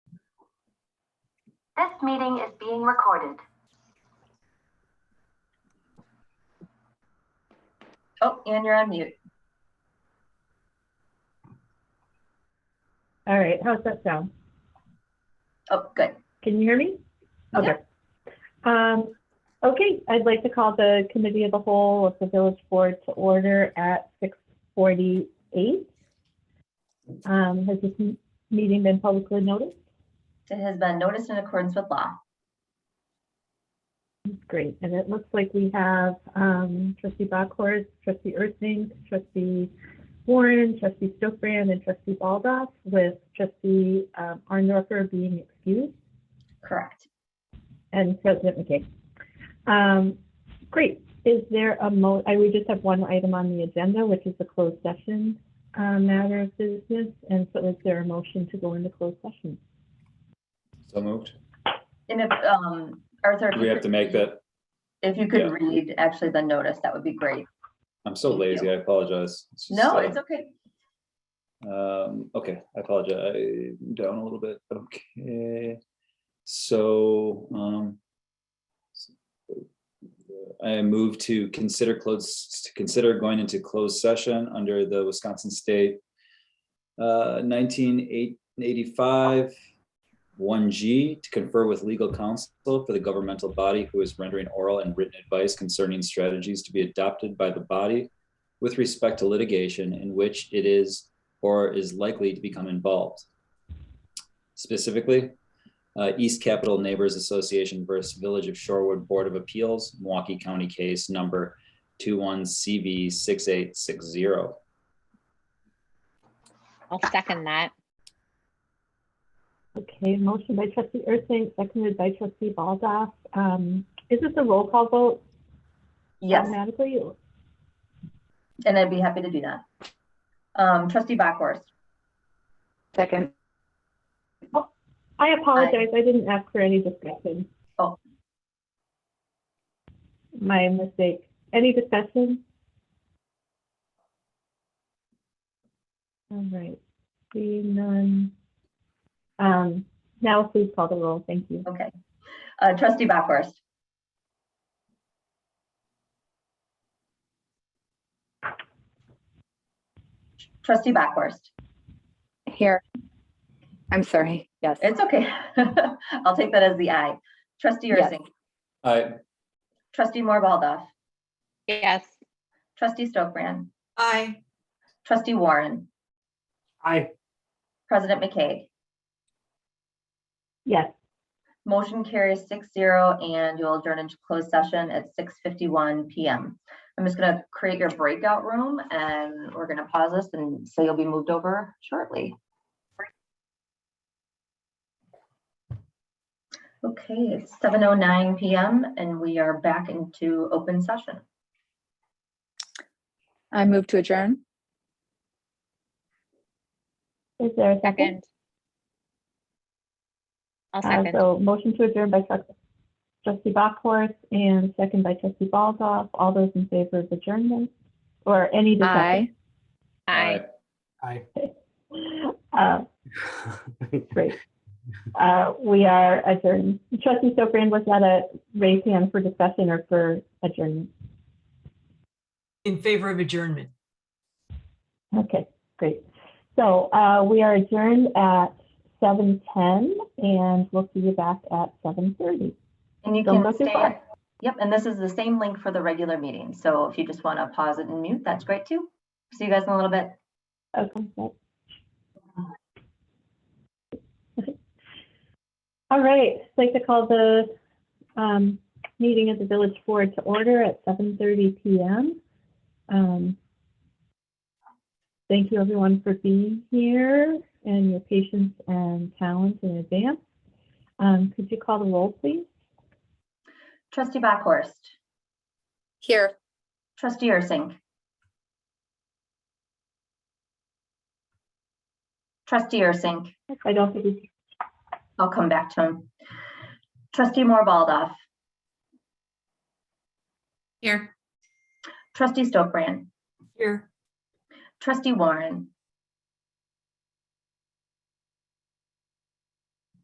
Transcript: This meeting is being recorded. Oh, and you're on mute. All right, how's that sound? Oh, good. Can you hear me? Okay. Um, okay, I'd like to call the committee of the whole of the village board to order at six forty-eight. Um, has this m- meeting been publicly noticed? It has been noticed in accordance with law. Great, and it looks like we have, um, trustee Bachhorst, trustee Ursink, trustee Warren, trustee Stokbrand, and trustee Baldoff with trustee, um, Arndorfer being excused. Correct. And President McKay. Um, Great. Is there a mo, I, we just have one item on the agenda, which is the closed session uh, matter of business. And so is there a motion to go into closed session? So moved. And if, um, Arthur. if Do you we have could to make read- that? If you yeah. could read actually the notice, that would be great. I'm so Thank you. lazy. I apologize. It's just, No, uh, it's okay. Um, okay, I apologize. Down a little bit. Okay. So, um, I move to consider close, to consider going into closed session under the Wisconsin State uh, nineteen eighty-five one G to confer with legal counsel for the governmental body who is rendering oral and written advice concerning strategies to be adopted by the body with respect to litigation in which it is or is likely to become involved. Specifically, uh, East Capital Neighbors Association versus Village of Shorewood Board of Appeals, Milwaukee County case number 21CV6860. I'll second that. Okay, motion by trustee Ursink, seconded by trustee Baldoff. Um, Is this a roll call vote Yes, automatically? and I'd be happy to do that. Um, trustee Bachhorst, Second, I apologize, I didn't ask for any discussion. Oh. My mistake. Any discussion? All right, seeing none. Um, now please call the roll, thank you. okay. Uh, trustee Bachhorst, trustee Bachhorst, here. I'm sorry, yes. it's okay. I'll take that as the aye. Trustee Yes. Ursink, Aye. trustee Moore Baldoff, Yes, Trustee Stokbrand. Aye. Trustee Warren. Aye. President McKay. Yes, Motion carries six zero and you'll adjourn into closed session at six fifty-one PM. I'm just gonna create your breakout room and we're gonna pause this and so you'll be moved over shortly. Okay, it's seven oh nine PM and we are back into open session. I move to adjourn. is there a second. second? I'll Uh, second. So motion to adjourn by trust- trustee Bachhorst and second by trustee Baldoff. All those in favor of adjournment or any discussion? Aye. Aye. Aye. Uh, Great. Uh, We are adjourned. Trustee Sofran, was that a raise hand for discussion or for adjournment? In favor of adjournment. Okay, great. So uh, we are adjourned at 7:10 and we'll see you back at 7:30. And you Don't can go too stay, far. at- yep, and this is the same link for the regular meeting. So if you just want to pause it and mute, that's great too. See you guys in a little bit. Okay. great. All right, I'd like to call the um, meeting of the village board to order at 7:30 PM. Um, Thank you, everyone, for being here and your patience and talent in advance. Um, Could you call the roll, please? Trustee Backhorst, Here. trustee Ursink. Trustee Ursink, I don't think we I'll come back to him. Trustee Moore Baldoff, Here. trustee Stokbrand, Here. trustee Warren,